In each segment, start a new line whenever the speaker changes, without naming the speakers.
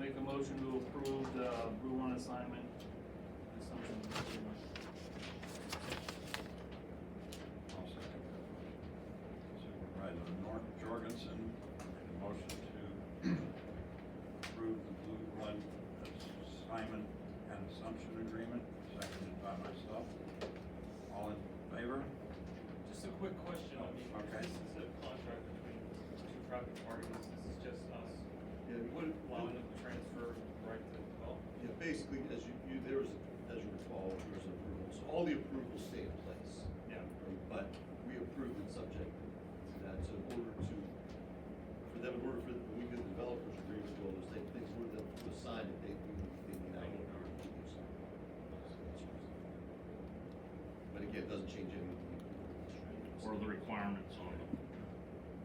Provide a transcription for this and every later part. Make a motion to approve the Brew One assignment. Assumption.
I'll second that motion. Supervisor Nor- Jorgensen made a motion to approve the Blue Blood assignment and assumption agreement, seconded by myself. All in favor?
Just a quick question, I mean,
Okay.
this is a contract between two private parties, this is just us.
Yeah, we-
Would allow them to transfer right to develop?
Yeah, basically, as you, you, there was, as you recall, there was approvals, all the approvals stay in place.
Yeah.
But we approved it subject to that, so in order to, for them, in order for, when we did the developers agreement, well, those things, things were them to assign it, they, we, they need that in order to do something. But again, it doesn't change anything.
or the requirements on them.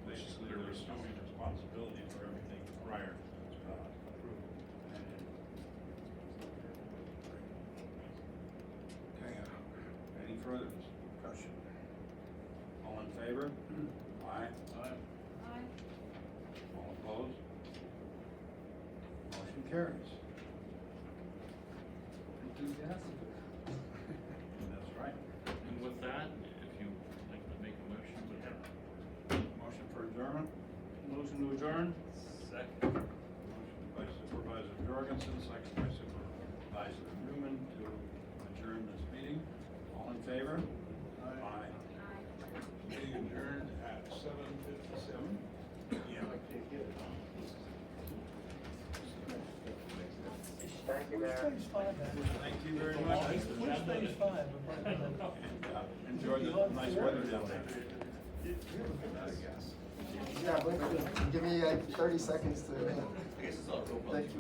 Basically, there's no responsibility for everything prior to uh, approval. Okay, uh, any further discussion? All in favor? Aye.
Aye.
Aye.
All opposed? Motion carries. That's right.
And with that, if you would like to make a motion, we have
Motion for adjournment?
Motion to adjourn?
Second.
Motion by Supervisor Jorgensen, second by Supervisor Newman to adjourn this meeting. All in favor? Aye.
Aye.
Meeting adjourned at seven fifty-seven. Yeah.
Thank you, Mayor.
Thank you very much.
Which stage five?
And, uh, Enjoy the nice weather down there.
Yeah, but give me like thirty seconds to.
I guess it's all real.
Thank you.